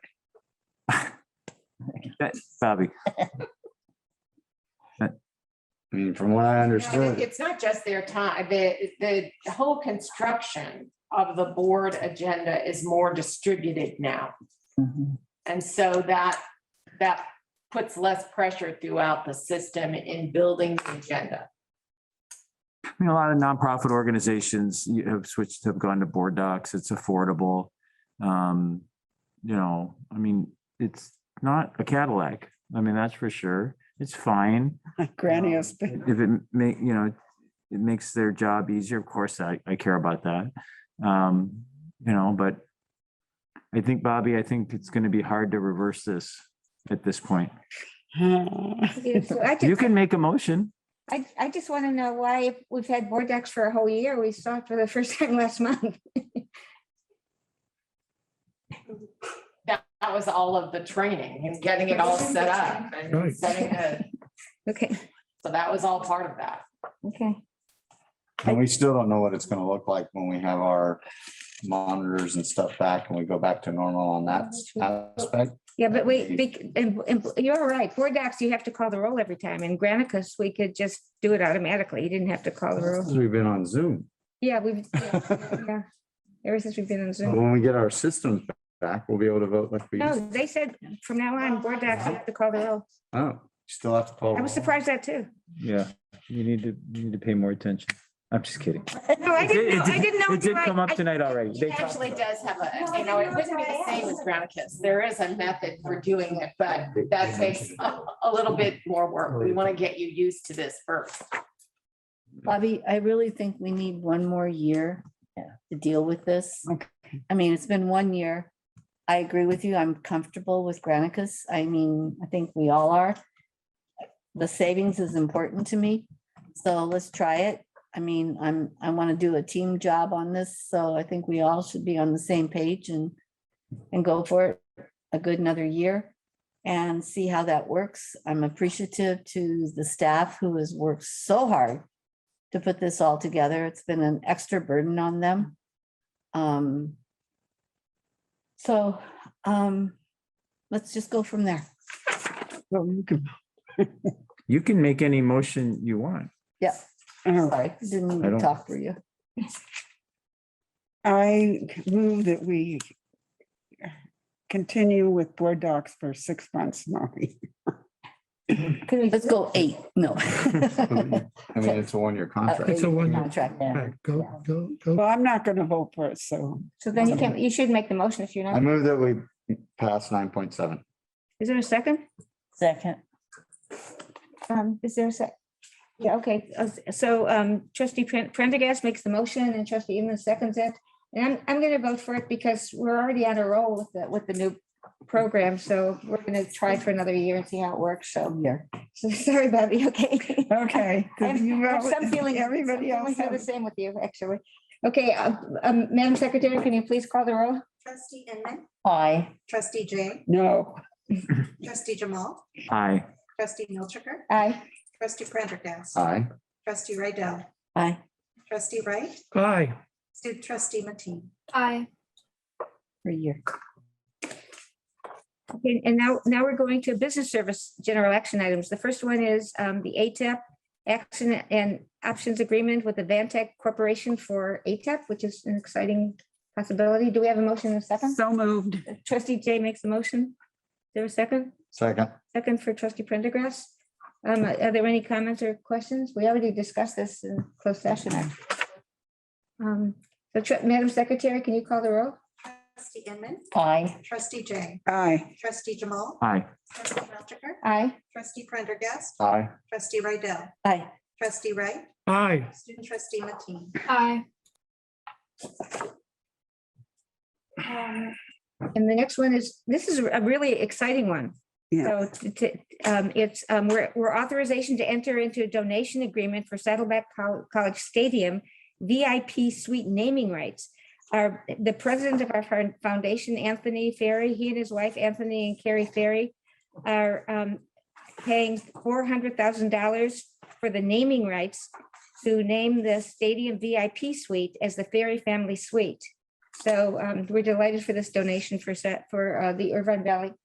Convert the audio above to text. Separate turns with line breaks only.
that, Bobby?
I mean, from what I
No,
understood,
It's not just their time, the, the whole construction of the board agenda is more distributed now. And so that, that puts less pressure throughout the system in building the agenda.
I mean, a lot of nonprofit organizations you have switched, have gone to board docs. It's affordable. Um, you know, I mean, it's not a Cadillac. I mean, that's for sure. It's fine.
Granny
Um,
has been,
If it ma, you know, it makes their job easier, of course, I, I care about that. Um, you know, but I think, Bobby, I think it's gonna be hard to reverse this at this point.
So I
You
just,
can make a motion.
I, I just want to know why if we've had board docs for a whole year. We saw it for the first time last month.
That was all of the training and getting it all set up and
Right.
setting the,
Okay,
so that was all part of that.
okay.
and we still don't know what it's gonna look like when we have our monitors and stuff back and we go back to normal on that aspect.
Yeah, but wait, bec- and, and you're right. Board docs, you have to call the roll every time. In Granicus, we could just do it automatically. You didn't have to call the roll.
Since We've been on Zoom.
Yeah, we've,
But
yeah. Ever since we've been on
Oh.
Zoom.
When we get our systems back, we'll be able to vote like we,
No,
used-
they said from now on, board docs, you have to call the roll.
oh, still have to call.
I was surprised at that too.
Yeah, you need to, you need to pay more attention. I'm just kidding.
No, I
It did-
didn't know.
it
I
did-
didn't know.
It did
until I-
come up
I-
tonight already. They
It
talked
actually
about
does have a, you know, it wouldn't be the same as Granicus. There is a method for doing it, but that takes a, a little bit more work. We want to get you used to this first.
Bobby, I really think we need one more year to deal with this.
Okay.
I mean, it's been one year. I agree with you. I'm comfortable with Granicus. I mean, I think we all are. The savings is important to me, so let's try it. I mean, I'm, I want to do a team job on this, so I think we all should be on the same page and, and go for it a good another year and see how that works. I'm appreciative to the staff who has worked so hard to put this all together. It's been an extra burden on them. Um, so, um, let's just go from there.
so you can-
it. You can make any motion you want.
Yeah,
all right.
sorry, didn't mean
I don't-
to talk for you.
I move that we continue with board docs for six months, Molly.
Let's go eight, no.
I mean, it's a one-year contract.
It's a one. Contract, yeah.
Go, go, go.
Well, I'm not going to vote for it, so
So then you can, you should make the motion if you're
I
not.
move that we pass nine point seven.
Is there a second?
Second.
Um, is there a sec? Yeah, okay, uh, so um trustee Pren- Prendergast makes the motion and trustee Inman seconds it. And I'm, I'm gonna vote for it because we're already on a roll with the, with the new program, so we're gonna try for another year and see how it works, so.
Yeah.
So sorry, Bobby, okay?
okay.
I have-
You
I have
vote,
some feeling,
Everybody else.
are the
has-
same with you, actually. Okay, uh, um, Madam Secretary, can you please call the roll?
Trustee Inman,
Aye.
trustee Jane,
No.
trustee Jamal,
Aye.
trustee Milchiker,
Aye.
trustee Prendergast,
Aye.
trustee Rydell,
Aye.
trustee Wright,
Aye.
student trustee Matee.
Aye.
For a year.
Okay, and now, now we're going to business service general action items. The first one is um, the ATEP action and options agreement with the Vantech Corporation for ATEP, which is an exciting possibility. Do we have a motion in a second?
So moved.
Trustee Jay makes the motion. Is there a second?
Second.
Second for trustee Prendergast. Um, Are there any comments or questions? We already discussed this in closed session. Um, So tr- Madam Secretary, can you call the roll?
Trustee Inman,
Aye.
trustee Jane,
Aye.
trustee Jamal,
Aye.
trustee Milchiker,
Aye.
trustee Prendergast,
Aye.
trustee Rydell,
Aye.
trustee Wright,
Aye.
student trustee Matee.
Aye. Um, And the next one is, this is a really exciting one.
Yeah.
So t- t- um, it's, um, we're we're authorization to enter into a donation agreement for Saddleback Col- College Stadium VIP suite naming rights. Our, the president of our foun- foundation, Anthony Ferry, he and his wife, Anthony and Carrie Ferry, are um, paying $400,000 for the naming rights to name the stadium VIP suite as the Ferry Family Suite. So um, we're delighted for this donation for, Sa- for uh, the Irvine Valley